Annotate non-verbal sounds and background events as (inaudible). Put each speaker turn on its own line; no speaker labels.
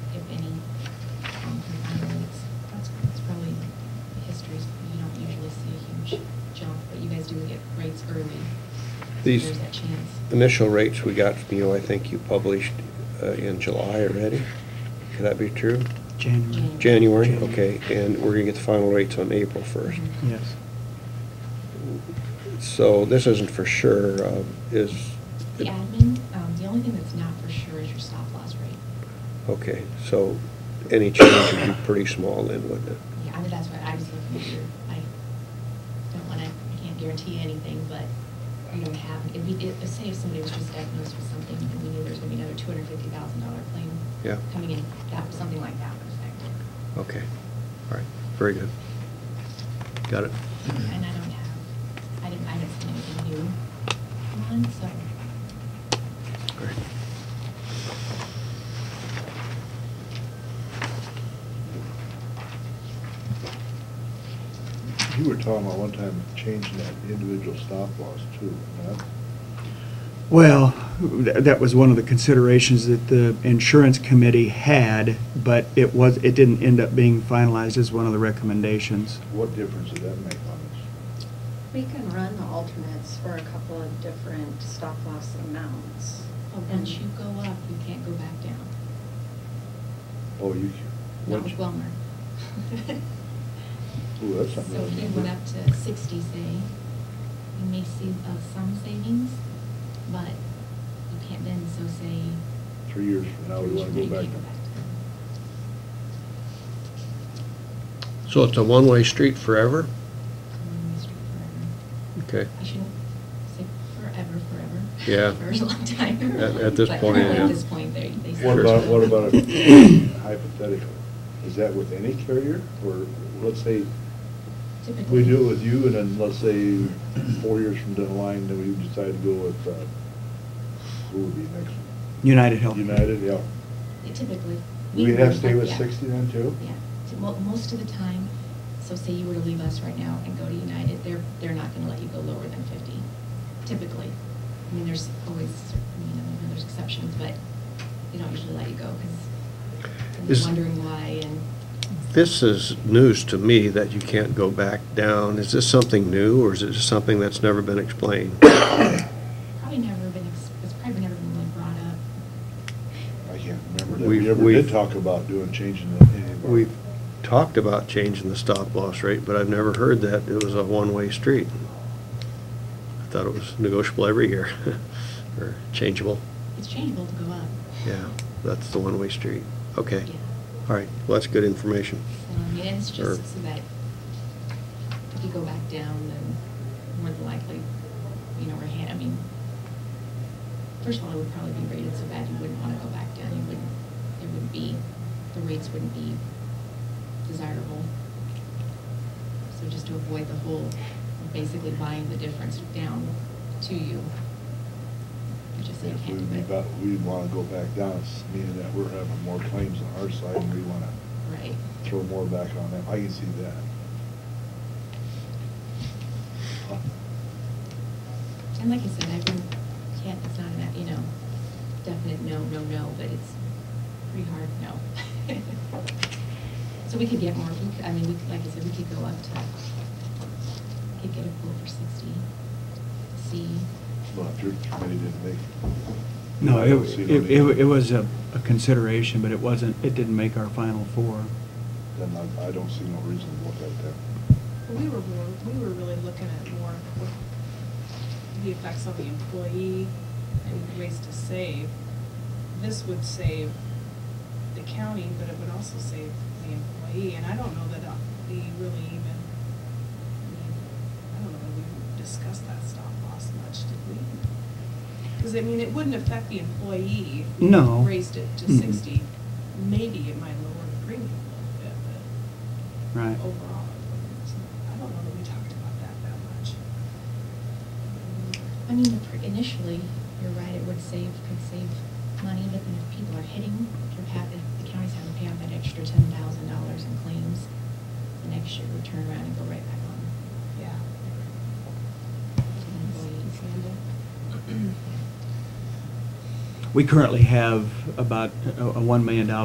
um, early.
These-
There's that chance.
Initial rates we got from you, I think you published uh, in July already. Could that be true?
January.
January.
January, okay, and we're gonna get the final rates on April first.
Mhm.
Yes.
So this isn't for sure, uh, is,
The admin, um, the only thing that's not for sure is your stop loss rate.
okay, so any change would be pretty small then, wouldn't it?
Yeah, I mean, that's what I was looking for. I don't want to, I can't guarantee anything, but we don't have, if we, if, say if somebody was just diagnosed with something and we knew there's going to be another two hundred fifty thousand dollar claim
Yeah.
coming in, that, something like that would affect it.
Okay, all right, very good. Got it.
And I don't have, I didn't, I haven't seen anything new on, so.
Great.
You were talking about one time changing that individual stop loss too, huh?
Well, th- that was one of the considerations that the insurance committee had, but it was, it didn't end up being finalized as one of the recommendations.
What difference did that make on us?
We can run the alternates for a couple of different stop loss amounts.
But
And-
once Oh, you go up, you can't go back down.
Oh, you.
Not
what-
with Wilmer.
Ooh, that's something.
So
I
he went
remember.
up to sixty, say, you may see uh, some savings, but you can't then, so say.
Three years from now, we
three
want
years
to go
from now,
back.
you can't
So it's a one-way street forever?
down. Mm, it's forever.
Okay.
I shouldn't say forever, forever.
Yeah.
For a long time.
At- at this
But
point,
yeah.
At this point, they, they.
What
Sure.
about,
(laughs)
what about a- hypothetical? Is that with any carrier or let's say
Typically.
we do it with you and then let's say four years from down the line, then we decide to go with, uh, who would be next?
United Health.
United, yeah.
Yeah, Typically.
Do we have to
would,
stay with
yeah.
60 then, too?
Yeah, So, mo- most of the time, so say you were to leave us right now and go to United, they're, they're not gonna let you go lower than fifty, typically. I mean, there's always, you know, I know there's exceptions, but they don't usually let you go, because
Is-
you're wondering why, and
This is news to me that you can't go back down. Is this something new, or is it just something that's never been explained?
probably never been, ex- it's probably never been really brought up.
I can't remember that
We've-
we ever
we've-
did talk about doing, changing the- any of our.
We've talked about changing the stop loss rate, but I've never heard that it was a one-way street. I thought it was negotiable every year, (laughs) or changeable.
It's changeable to go up.
Yeah, that's the one-way street. Okay.
Yeah.
All right, well, that's good information.
Um, And it's
Or-
just so that if you go back down, then more than likely, you know, we're hand, I mean, first of all, it would probably be rated so bad you wouldn't want to go back down. You wouldn't, it would be, the rates wouldn't be desirable. So just to avoid the whole, basically buying the difference down to you. I just said
If
you
we,
can't do it.
about- we want to go back down, it's meaning that we're having more claims on our side and we want to
Right.
throw more back on them. I can see that.
And like I said, I've been, can't, it's not a, you know, definite no, no, no, but it's pretty hard no. (laughs) So we could get more, we could- I mean, we could, like I said, we could go up to, could get a pool for sixty, see.
Well, if your committee didn't make.
No,
I don't see
it, it,
need.
it it was a a consideration, but it wasn't, it didn't make our final four.
Then I, I don't see no reason to look at that.
Well, We were, more we were really looking at more what the effects on the employee and ways to save. This would save the county, but it would also save the employee, and I don't know that uh, we really even, I mean, I don't know that we discussed that stop loss much, did we? Because, I mean, it wouldn't affect the employee if we
No.
raised it to
Mm-mm.
sixty. Maybe it might lower the premium a little bit, but
Right.
overall. I don't know that we talked about that that much.
I mean, the pr- initially, you're right, it would save, could save money, but then if people are hitting, if ha- if the county's having to pay out that extra ten thousand dollars in claims, the next year we turn around and go right back on
Mm, Yeah.
to the employees.
We currently have about a a $1 million